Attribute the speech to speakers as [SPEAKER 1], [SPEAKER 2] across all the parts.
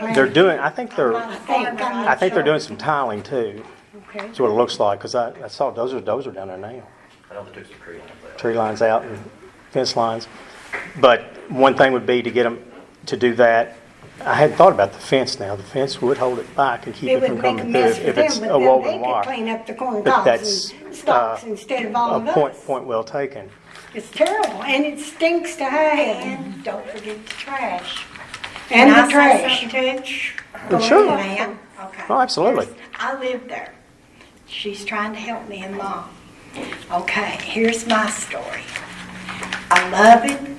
[SPEAKER 1] They're doing, I think they're,
[SPEAKER 2] I
[SPEAKER 3] think-
[SPEAKER 1] I think they're doing some tiling too,
[SPEAKER 3] Okay.
[SPEAKER 1] is what it looks like, because I, I saw dozer, dozer down there now.
[SPEAKER 4] I know there's some tree lines there.
[SPEAKER 1] Tree lines out and fence lines. But one thing would be to get them to do that. I hadn't thought about the fence now. The fence would hold it back and keep
[SPEAKER 3] It
[SPEAKER 1] it
[SPEAKER 3] would
[SPEAKER 1] from
[SPEAKER 3] make a
[SPEAKER 1] coming through
[SPEAKER 3] mess
[SPEAKER 1] if
[SPEAKER 3] for
[SPEAKER 1] if
[SPEAKER 3] them,
[SPEAKER 1] it's
[SPEAKER 3] but
[SPEAKER 1] a
[SPEAKER 3] then they
[SPEAKER 1] woven
[SPEAKER 3] could
[SPEAKER 1] wire.
[SPEAKER 3] clean up the corn
[SPEAKER 1] But
[SPEAKER 3] cobs
[SPEAKER 1] that's,
[SPEAKER 3] and stalks
[SPEAKER 1] uh,
[SPEAKER 3] instead of all
[SPEAKER 1] A
[SPEAKER 3] of
[SPEAKER 1] point,
[SPEAKER 3] us.
[SPEAKER 1] point well taken.
[SPEAKER 3] It's terrible, and it stinks to high heaven.
[SPEAKER 2] And don't forget the trash.
[SPEAKER 3] And
[SPEAKER 2] Can
[SPEAKER 3] the
[SPEAKER 2] I say
[SPEAKER 3] trash.
[SPEAKER 2] something to you?
[SPEAKER 1] Well, sure.
[SPEAKER 2] Ma'am? Okay.
[SPEAKER 1] Oh, absolutely.
[SPEAKER 2] I live there. She's trying to help me and mom. Okay, here's my story. I love it.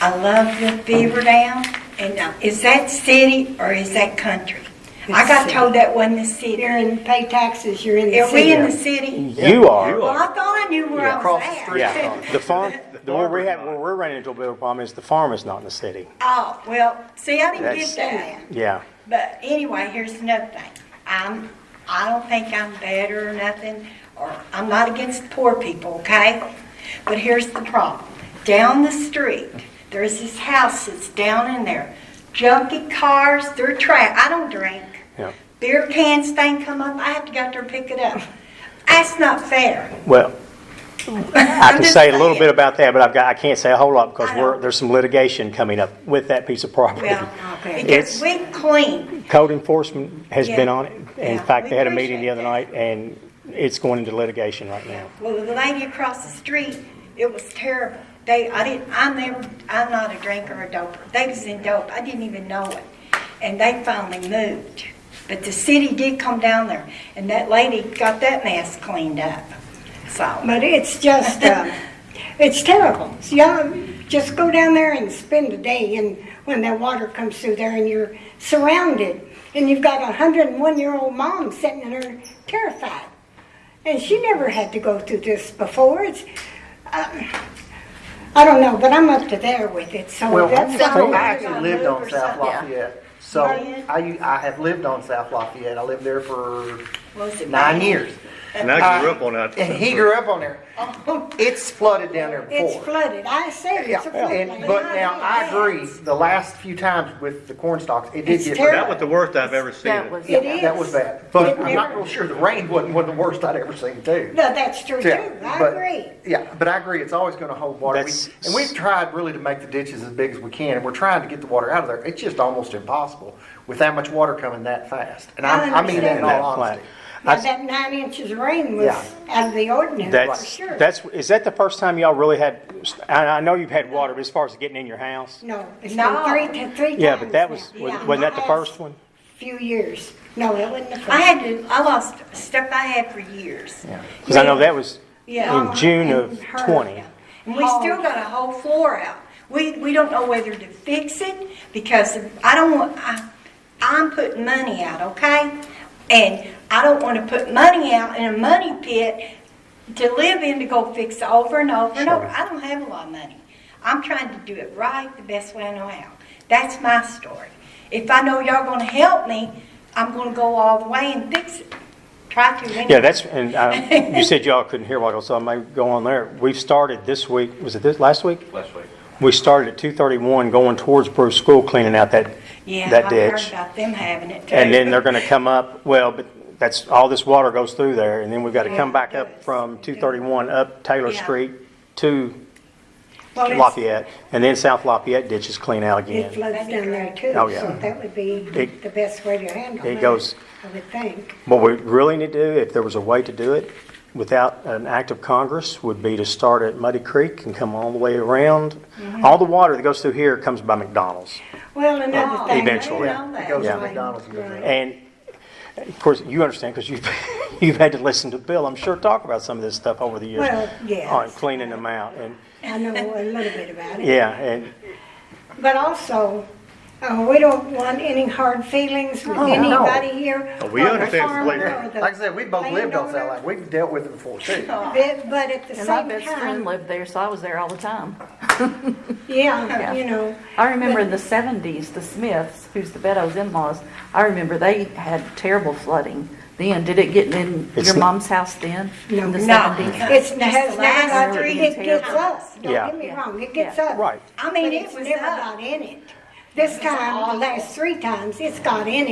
[SPEAKER 2] I love the Beaver Dam. And now, is that city or is that country? I
[SPEAKER 3] It's
[SPEAKER 2] got
[SPEAKER 3] city.
[SPEAKER 2] told that wasn't the city.
[SPEAKER 3] You're in, pay taxes, you're in the
[SPEAKER 2] Are we in
[SPEAKER 3] city.
[SPEAKER 2] the city?
[SPEAKER 1] You are.
[SPEAKER 4] you
[SPEAKER 2] Well,
[SPEAKER 4] are.
[SPEAKER 2] I thought I knew where I was
[SPEAKER 4] Across the
[SPEAKER 2] at.
[SPEAKER 4] street.
[SPEAKER 1] Yeah. The farm, the where we
[SPEAKER 4] farmer's
[SPEAKER 1] have, where
[SPEAKER 4] not.
[SPEAKER 1] we're running into a bit of a problem is the farm is not in the city.
[SPEAKER 2] Oh, well, see, I didn't
[SPEAKER 1] That's-
[SPEAKER 2] get that.
[SPEAKER 1] Yeah.
[SPEAKER 2] But anyway, here's another thing. I'm, I don't think I'm better or nothing, or I'm not against poor people, okay? But here's the problem. Down the street, there's this house that's down in there. Junky cars, they're trash. I don't drink.
[SPEAKER 1] Yeah.
[SPEAKER 2] Beer cans, thing come up, I have to go out there and pick it up. That's not fair.
[SPEAKER 1] Well, I can
[SPEAKER 2] just
[SPEAKER 1] say a little
[SPEAKER 2] saying.
[SPEAKER 1] bit about that, but I've got, I can't say a whole lot because
[SPEAKER 2] I
[SPEAKER 1] we're,
[SPEAKER 2] know.
[SPEAKER 1] there's some litigation coming up with that piece of property.
[SPEAKER 2] Well,
[SPEAKER 3] Okay.
[SPEAKER 2] because
[SPEAKER 1] It's-
[SPEAKER 2] we clean.
[SPEAKER 1] Code enforcement has
[SPEAKER 2] Yeah.
[SPEAKER 1] been on it. In
[SPEAKER 2] Yeah,
[SPEAKER 1] fact,
[SPEAKER 2] we
[SPEAKER 1] they had a meeting
[SPEAKER 2] appreciate
[SPEAKER 1] the other night and it's going into litigation right now.
[SPEAKER 2] Well, the lady across the street, it was terrible. They, I didn't, I never, I'm not a drinker or doper. They was in dope, I didn't even know it. And they finally moved. But the city did come down there, and that lady got that mess cleaned up. So,
[SPEAKER 3] But it's just, um, it's terrible. So y'all just go down there and spend a day and when that water comes through there and you're surrounded. And you've got a hundred and one year old mom sitting in her terrified. And she never had to go through this before. It's, uh, I don't know, but I'm up to there with it, so
[SPEAKER 5] Well,
[SPEAKER 3] that's.
[SPEAKER 5] so
[SPEAKER 2] cool.
[SPEAKER 5] I actually lived on South
[SPEAKER 2] Yeah.
[SPEAKER 5] Lafayette. So
[SPEAKER 2] Yeah.
[SPEAKER 5] I, I have lived on South Lafayette. I lived there for
[SPEAKER 2] was it?
[SPEAKER 5] nine years.
[SPEAKER 4] And I grew up on that.
[SPEAKER 5] Uh, And he grew up on there. It's flooded down there
[SPEAKER 3] Oh. It's
[SPEAKER 5] before.
[SPEAKER 3] flooded. I say
[SPEAKER 5] Yeah,
[SPEAKER 3] it's a
[SPEAKER 5] and,
[SPEAKER 3] floodplain.
[SPEAKER 5] but now I agree, the last few times with the corn stalks, it did
[SPEAKER 3] It's
[SPEAKER 5] get
[SPEAKER 3] terrible.
[SPEAKER 5] bad.
[SPEAKER 4] That was the worst I've ever seen.
[SPEAKER 6] That
[SPEAKER 4] it.
[SPEAKER 6] was,
[SPEAKER 3] It
[SPEAKER 5] That
[SPEAKER 3] is.
[SPEAKER 5] was bad. But
[SPEAKER 3] It
[SPEAKER 5] I'm not
[SPEAKER 3] never-
[SPEAKER 5] real sure, the rain wasn't one of the worst I'd ever seen too.
[SPEAKER 3] No, that's true too.
[SPEAKER 5] Yeah,
[SPEAKER 3] I
[SPEAKER 5] but-
[SPEAKER 3] agree.
[SPEAKER 5] Yeah, but I agree, it's always gonna hold water. We-
[SPEAKER 1] That's-
[SPEAKER 5] And we've tried really to make the ditches as big as we can, and we're trying to get the water out of there. It's just almost impossible with that much water coming that fast. And I,
[SPEAKER 3] I
[SPEAKER 5] I mean that in
[SPEAKER 1] And that
[SPEAKER 5] all
[SPEAKER 1] plant.
[SPEAKER 5] honesty.
[SPEAKER 3] Now,
[SPEAKER 1] I-
[SPEAKER 3] that nine inches of rain was
[SPEAKER 5] Yeah.
[SPEAKER 3] out of the ordinary, for
[SPEAKER 1] That's,
[SPEAKER 3] sure.
[SPEAKER 1] that's, is that the first time y'all really had, I, I know you've had water, but as far as getting in your house?
[SPEAKER 3] No, it's
[SPEAKER 2] No.
[SPEAKER 3] been three, t- three times
[SPEAKER 1] Yeah, but that was,
[SPEAKER 3] now. Yeah.
[SPEAKER 1] wasn't that the first one?
[SPEAKER 3] Few years. No, it wasn't the first.
[SPEAKER 2] I had to, I lost stuff I had for years.
[SPEAKER 1] Because I know that was
[SPEAKER 2] Yeah.
[SPEAKER 1] in June of
[SPEAKER 3] And her.
[SPEAKER 1] 20.
[SPEAKER 2] And we
[SPEAKER 1] Oh.
[SPEAKER 2] still got a whole floor out. We, we don't know whether to fix it because I don't want, I, I'm putting money out, okay? And I don't want to put money out in a money pit to live in to go fix over and over and over. I don't have a lot of money. I'm trying to do it right the best way I know how. That's my story. If I know y'all gonna help me, I'm gonna go all the way and fix it. Try to anyway.
[SPEAKER 1] Yeah, that's, and um, you said y'all couldn't hear what I was, so I might go on there. We've started this week, was it this, last week?
[SPEAKER 4] Last week.
[SPEAKER 1] We started at 231 going towards Bruce School cleaning out that,
[SPEAKER 2] Yeah,
[SPEAKER 1] that
[SPEAKER 2] I
[SPEAKER 1] ditch.
[SPEAKER 2] heard about them having it too.
[SPEAKER 1] And then they're going to come up, well, but that's, all this water goes through there. And then we've got to come back up from 231 up Taylor
[SPEAKER 2] Yeah.
[SPEAKER 1] Street to
[SPEAKER 3] Well, it's-
[SPEAKER 1] Lafayette. And then South Lafayette ditches clean out
[SPEAKER 3] It
[SPEAKER 1] again.
[SPEAKER 3] floods down there too,
[SPEAKER 1] Oh, yeah.
[SPEAKER 3] so that would be
[SPEAKER 1] It-
[SPEAKER 3] the best way to handle it.
[SPEAKER 1] it goes-
[SPEAKER 3] I would think.
[SPEAKER 1] What we really need to do, if there was a way to do it without an act of Congress, would be to start at Muddy Creek and come all the way around. All the water that goes through here comes by McDonald's.
[SPEAKER 3] Well, another
[SPEAKER 2] Oh,
[SPEAKER 3] thing.
[SPEAKER 1] Eventually.
[SPEAKER 2] Yeah.
[SPEAKER 5] It goes
[SPEAKER 1] Yeah.
[SPEAKER 5] to McDonald's. and goes around.
[SPEAKER 1] And of course, you understand because you've, you've had to listen to Bill, I'm sure, talk about some of this stuff over the years.
[SPEAKER 3] Well, yes.
[SPEAKER 1] On cleaning them out and,
[SPEAKER 3] I know a little bit about it.
[SPEAKER 1] yeah, and,
[SPEAKER 3] But also, uh, we don't want any hard feelings
[SPEAKER 1] Oh,
[SPEAKER 3] with anybody here.
[SPEAKER 4] Oh, we
[SPEAKER 3] or the
[SPEAKER 4] understand
[SPEAKER 3] farmer
[SPEAKER 4] completely.
[SPEAKER 3] or the Oh,
[SPEAKER 5] Like I said, we both lived on South
[SPEAKER 3] landowner.
[SPEAKER 5] Lafayette. We've dealt with it before too.
[SPEAKER 3] But, but at the
[SPEAKER 6] and my
[SPEAKER 3] same
[SPEAKER 6] best friend
[SPEAKER 3] time,
[SPEAKER 6] lived there, so I was there all the time.
[SPEAKER 3] yeah,
[SPEAKER 6] Yeah.
[SPEAKER 3] you know,
[SPEAKER 6] I remember in the seventies, the Smiths, who's the Beddoes in-laws, I remember they had terrible flooding then. Did it get in
[SPEAKER 1] It's
[SPEAKER 6] your
[SPEAKER 1] not-
[SPEAKER 6] mom's house then?
[SPEAKER 3] No.
[SPEAKER 6] In the
[SPEAKER 3] No.
[SPEAKER 6] seventies?
[SPEAKER 3] it's,
[SPEAKER 2] Just
[SPEAKER 3] it
[SPEAKER 2] the
[SPEAKER 3] has
[SPEAKER 2] last
[SPEAKER 3] not,
[SPEAKER 6] three
[SPEAKER 3] it gets
[SPEAKER 6] terrible.
[SPEAKER 3] us, don't
[SPEAKER 1] Yeah.
[SPEAKER 3] get me wrong, it
[SPEAKER 6] Yeah.
[SPEAKER 3] gets us.
[SPEAKER 1] right.
[SPEAKER 2] I mean,
[SPEAKER 3] But
[SPEAKER 2] it
[SPEAKER 3] it's
[SPEAKER 2] was
[SPEAKER 3] never
[SPEAKER 2] up.
[SPEAKER 3] got in it. This time, the last three times, it's got in it.